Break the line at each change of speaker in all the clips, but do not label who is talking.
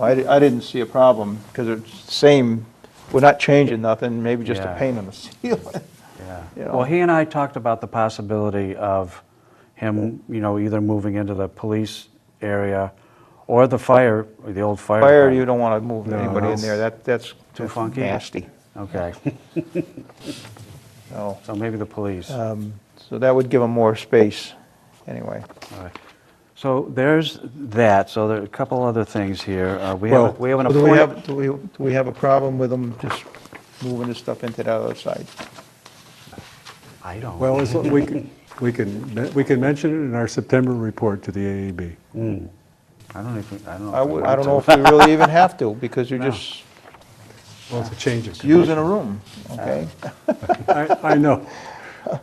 I, di- I didn't see a problem, because it's same, we're not changing nothing, maybe just a
Yeah.
paint on the ceiling.
Yeah.
You know.
Well, he and I talked about the possibility of him, you know, either moving into the police area or the fire, or the old fire.
Fire, you
department.
don't want to move anybody in
that's
there, that, that's
too
that's
funky.
Nasty,
Okay,
no.
so maybe the police. All
Um, So that would give them more space, anyway.
right. So there's that, so there are a couple other things here. Uh, We have, a- we have an
Well, do we have-
appointment.
Do we, do we have a problem with them just moving the stuff into the other side?
I don't.
Well, as- we can, we can, we can mention it in our September report to the AAB.
Hmm. I don't even, I don't know.
I
if
would,
want
I don't know
to.
if we really even have to, because you're just
Well, it's a change of
using a room, okay?
I, I know,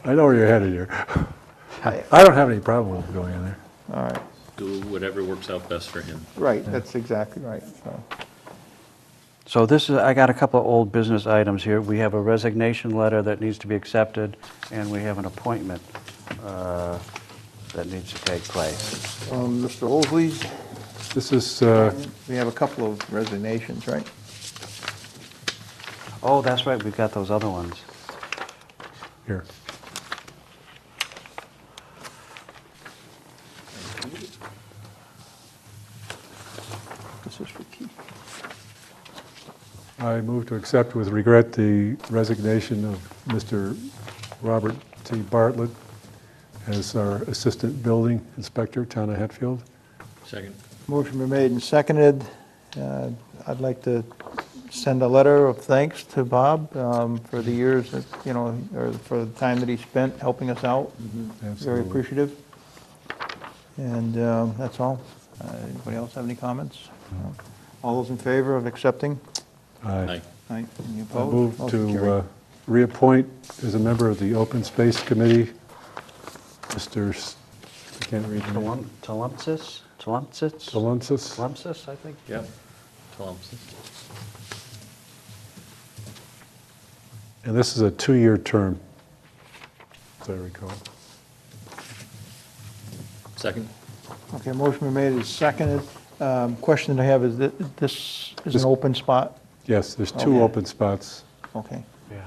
I know where you're headed here. I don't have any problem with going in there.
All right,
do whatever works out best for him.
right, that's exactly right, so.
So this is, I got a couple of old business items here. We have a resignation letter that needs to be accepted, and we have an appointment uh, that needs to take place.
Um, Mr. Holsley,
This is, uh,
we have a couple of resignations, right?
Oh, that's right, we've got those other ones.
here,
This is for Keith.
I move to accept with regret the resignation of Mr. Robert T. Bartlett as our Assistant Building Inspector, Town of Hatfield.
Second.
Motion been made and seconded. Uh, I'd like to send a letter of thanks to Bob um, for the years that, you know, or for the time that he spent helping us out. Very
Mm-hmm. Absolutely.
appreciative. And um, that's all. Uh, Anybody else have any comments?
Mm-hmm.
No. All those in favor of accepting?
Aye.
Aye. Any
I
opposed?
move
Motion
to
carried.
uh, reappoint as a member of the Open Space Committee, Mr., S- I can't read the name.
Tlum- Tlemcen? Tlemcen?
Talunsis.
Tlemcen, I think?
Yep. Thompson.
And this is a two-year term, as I recall.
Second.
uh,
Okay, motion been made and seconded. Um, Question I have is, thi- this is
This-
an open spot?
Yes, there's
Okay.
two open spots.
Okay,
Yeah.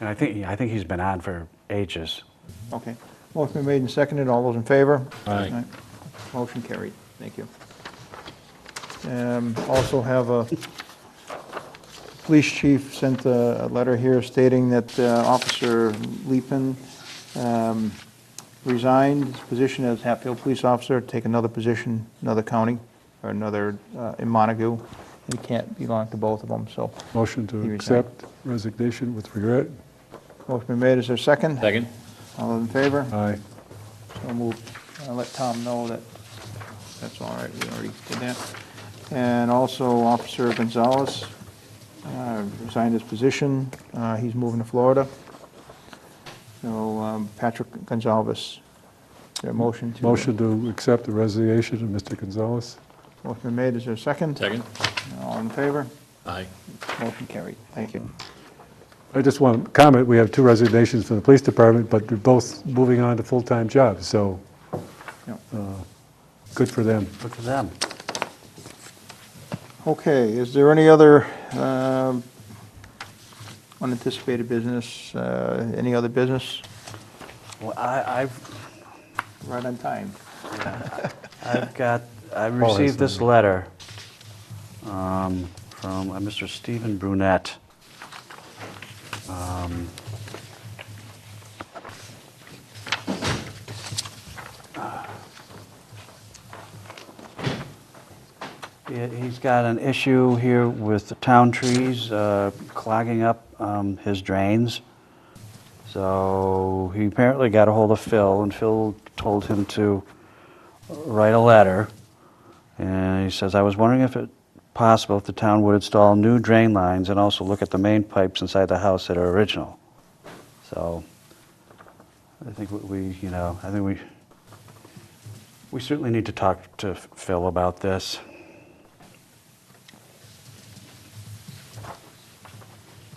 And I think, I think he's been on for ages.
okay. Motion been made and seconded. All those in favor?
Aye.
Motion carried. Thank you. Um, Also have a, police chief sent a a letter here stating that uh, Officer Leepin um, resigned his position as Hatfield Police Officer, to take another position, another county, or another, uh, in Montague, and he can't belong to both of them, so.
Motion
He
to
resigned.
accept resignation with regret.
Motion been made, is there a second?
Second.
All in favor?
Aye.
So we'll uh, let Tom know that that's all right, we already did that. And also Officer Gonzalez uh, resigned his position, Uh, he's moving to Florida. So um, Patrick Gonzalez, is there a motion to?
Motion to accept the resignation of Mr. Gonzalez.
Motion been made, is there a second?
Second.
All in favor?
Aye.
Motion carried, thank you.
I just want to comment, we have two resignations from the police department, but they're both moving on to full-time jobs, so
Yeah.
good for them.
Look at them.
Okay, is there any other um, unanticipated business, uh, any other business?
Well, I, I've,
Right on time.
I've got, I
Always
received this
something.
letter um, from a Mr. Stephen Brunette. Um, he- He's got an issue here with the town trees uh, clogging up um, his drains. So he apparently got a hold of Phil, and Phil told him to write a letter, and he says, "I was wondering if it possible if the town would install new drain lines and also look at the main pipes inside the house that are original." So, I think what we, you know, I think we, we certainly need to talk to Phil about this.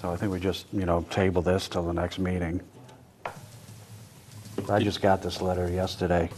So I think we just, you know, table this till the next meeting. I just got this letter yesterday.